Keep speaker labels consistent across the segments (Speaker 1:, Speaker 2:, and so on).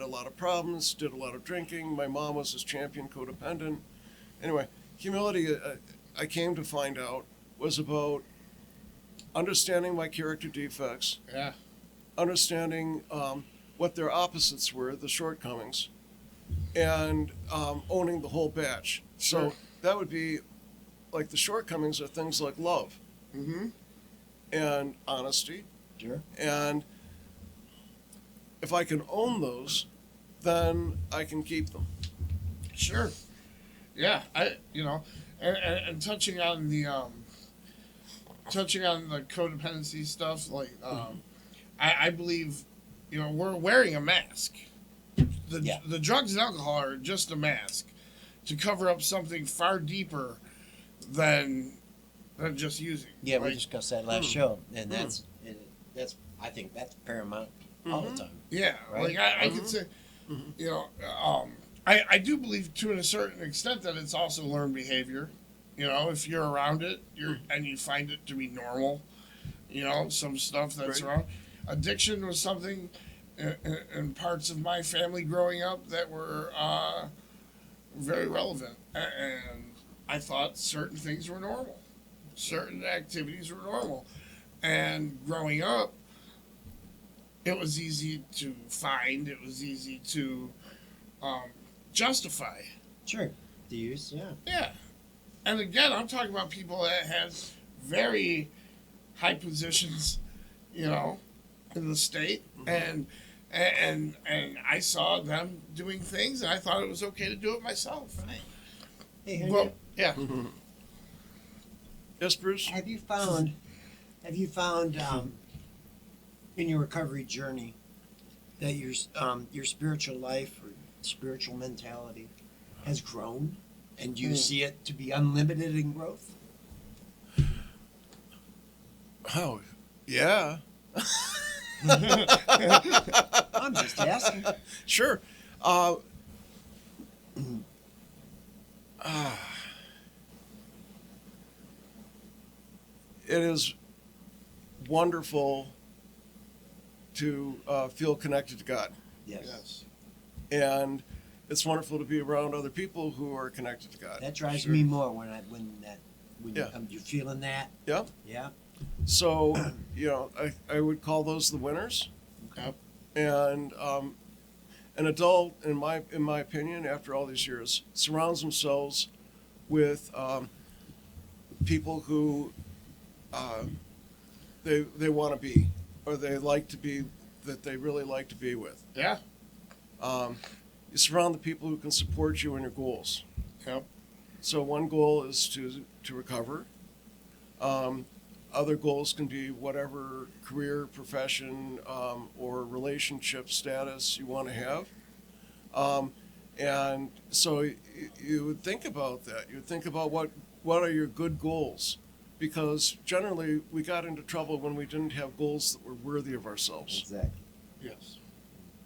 Speaker 1: a lot of problems, did a lot of drinking. My mom was his champion codependent. Anyway, humility, uh, I came to find out, was about understanding my character defects,
Speaker 2: Yeah.
Speaker 1: understanding um, what their opposites were, the shortcomings, and um, owning the whole batch. So
Speaker 2: Sure.
Speaker 1: that would be like the shortcomings are things like love
Speaker 2: Mm-hmm.
Speaker 1: and honesty.
Speaker 2: Sure.
Speaker 1: And if I can own those, then I can keep them.
Speaker 2: Sure. Yeah. I. You know, and, and, and touching on the um, touching on the codependency stuff, like
Speaker 3: Mm-hmm.
Speaker 2: um, I, I believe, you know, we're wearing a mask. The
Speaker 3: Yeah.
Speaker 2: the drugs and alcohol are just a mask to cover up something far deeper than than just using.
Speaker 3: Yeah, we
Speaker 2: Like,
Speaker 3: discussed that last
Speaker 1: Hmm.
Speaker 3: show, and that's and that's I think that's paramount all the
Speaker 1: Mhm.
Speaker 3: time.
Speaker 2: Yeah,
Speaker 3: Right?
Speaker 2: like I, I
Speaker 1: Mhm.
Speaker 2: could say, you know, um, I, I do believe to a certain extent that it's also learned behavior. You know, if you're around it, you're and you find it to be normal. You know, some stuff that's
Speaker 1: Right.
Speaker 2: wrong. Addiction was something in, in, in parts of my family growing up that were uh, very relevant, A- and I thought certain things were normal, certain activities were normal, and growing up, it was easy to find. It was easy to um, justify.
Speaker 3: Sure, the use, yeah,
Speaker 2: Yeah. And again, I'm talking about people that have very high positions, you know, in the state, and and and I saw them doing things, and I thought it was okay to do it myself.
Speaker 3: right. Hey, have,
Speaker 2: Well, yeah.
Speaker 1: Yes, Bruce?
Speaker 3: you, have you found have you found um, in your recovery journey that your s- um, your spiritual life or spiritual mentality has grown, and do you
Speaker 2: Hmm.
Speaker 3: see it to be unlimited in growth?
Speaker 1: Oh, yeah.
Speaker 3: I'm just asking.
Speaker 1: Sure. Uh, ah. it is wonderful to uh, feel connected to God.
Speaker 3: Yes,
Speaker 2: Yes.
Speaker 1: And it's wonderful to be around other people who are connected to God.
Speaker 3: that drives
Speaker 2: Sure.
Speaker 3: me more when I when that when
Speaker 1: Yeah.
Speaker 3: you come, you feeling that.
Speaker 1: Yeah.
Speaker 3: Yeah.
Speaker 1: So, you know, I, I would call those the winners.
Speaker 2: Yep.
Speaker 1: And um, an adult, in my in my opinion, after all these years, surrounds themselves with um, people who uh, they they want to be or they like to be that they really like to be with.
Speaker 2: Yeah.
Speaker 1: Um, you surround the people who can support you in your goals.
Speaker 2: Yep.
Speaker 1: So one goal is to to recover. Um, other goals can be whatever career, profession, um, or relationship status you want to have. Um, and so you, you would think about that. You would think about what what are your good goals, because generally we got into trouble when we didn't have goals that were worthy of ourselves.
Speaker 3: Exactly.
Speaker 2: Yes.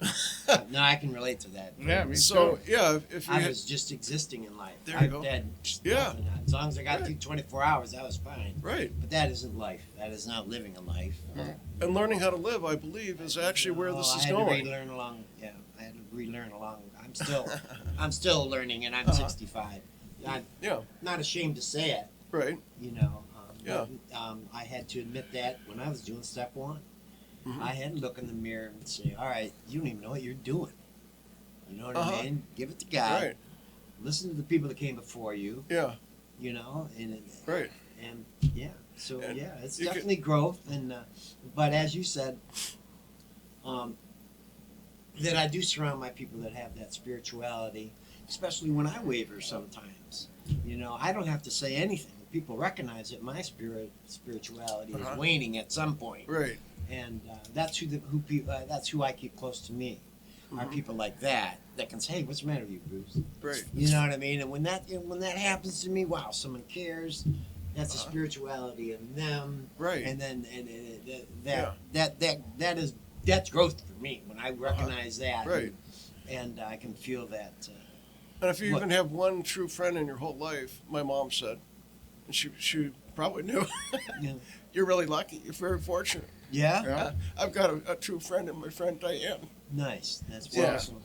Speaker 3: no, I can relate to that.
Speaker 2: Yeah. Me
Speaker 1: So
Speaker 2: too.
Speaker 1: yeah, if, if you
Speaker 3: I
Speaker 1: had-
Speaker 3: was just existing in life.
Speaker 1: There you
Speaker 3: I,
Speaker 1: go.
Speaker 3: That,
Speaker 1: Yeah.
Speaker 3: nothing. As long as I got
Speaker 1: Right.
Speaker 3: through 24 hours, that was fine.
Speaker 1: right
Speaker 3: But that isn't life. That is not living a life.
Speaker 2: Mhm.
Speaker 1: and learning how to live, I believe, is actually where
Speaker 3: No,
Speaker 1: this is
Speaker 3: Oh, I had
Speaker 1: going.
Speaker 3: To relearn along. Yeah, I had to relearn along. I'm still, I'm still learning, and I'm
Speaker 1: Uh-huh.
Speaker 3: 65. I'm
Speaker 1: Yeah,
Speaker 3: not ashamed to say it.
Speaker 1: right.
Speaker 3: You know. Um,
Speaker 1: Yeah.
Speaker 3: but, Um, I had to admit that when I was doing step one,
Speaker 1: Mhm.
Speaker 3: I had to look in the mirror and say, "All right, you don't even know what you're doing." You know what
Speaker 1: Uh-huh.
Speaker 3: I mean? Give it to God.
Speaker 1: Right.
Speaker 3: Listen to the people that came before you.
Speaker 1: Yeah.
Speaker 3: you know, and and-
Speaker 1: Right.
Speaker 3: and yeah, so
Speaker 1: And
Speaker 3: yeah, it's
Speaker 1: you could-
Speaker 3: definitely growth, and uh, but as you said, um, that I do surround my people that have that spirituality, especially when I waver sometimes. You know, I don't have to say anything. People recognize that my spirit spirituality
Speaker 1: Uh-huh.
Speaker 3: is waning at some point,
Speaker 1: Right.
Speaker 3: and uh, that's who the who pe- uh, that's who I keep close to me. Are
Speaker 1: Mhm.
Speaker 3: people like that that can say, "Hey, what's the matter with you, Bruce?"
Speaker 1: Right.
Speaker 3: You know what I mean? And when that and when that happens to me, wow, someone cares. That's
Speaker 1: Uh-huh.
Speaker 3: a spirituality in them,
Speaker 1: Right.
Speaker 3: and then and, and, and that
Speaker 1: Yeah. Uh-huh.
Speaker 3: that that that is that's growth for me when I recognize that,
Speaker 1: Right.
Speaker 3: And, I can feel that. Uh,
Speaker 1: And if you
Speaker 3: What?
Speaker 1: even have one true friend in your whole life, my mom said, and she she probably knew.
Speaker 3: Yeah.
Speaker 1: You're really lucky. You're very fortunate.
Speaker 3: yeah,
Speaker 2: Yeah.
Speaker 1: I've got a, a true friend in my friend Diane.
Speaker 3: Nice. That's
Speaker 1: Yeah.
Speaker 3: awesome.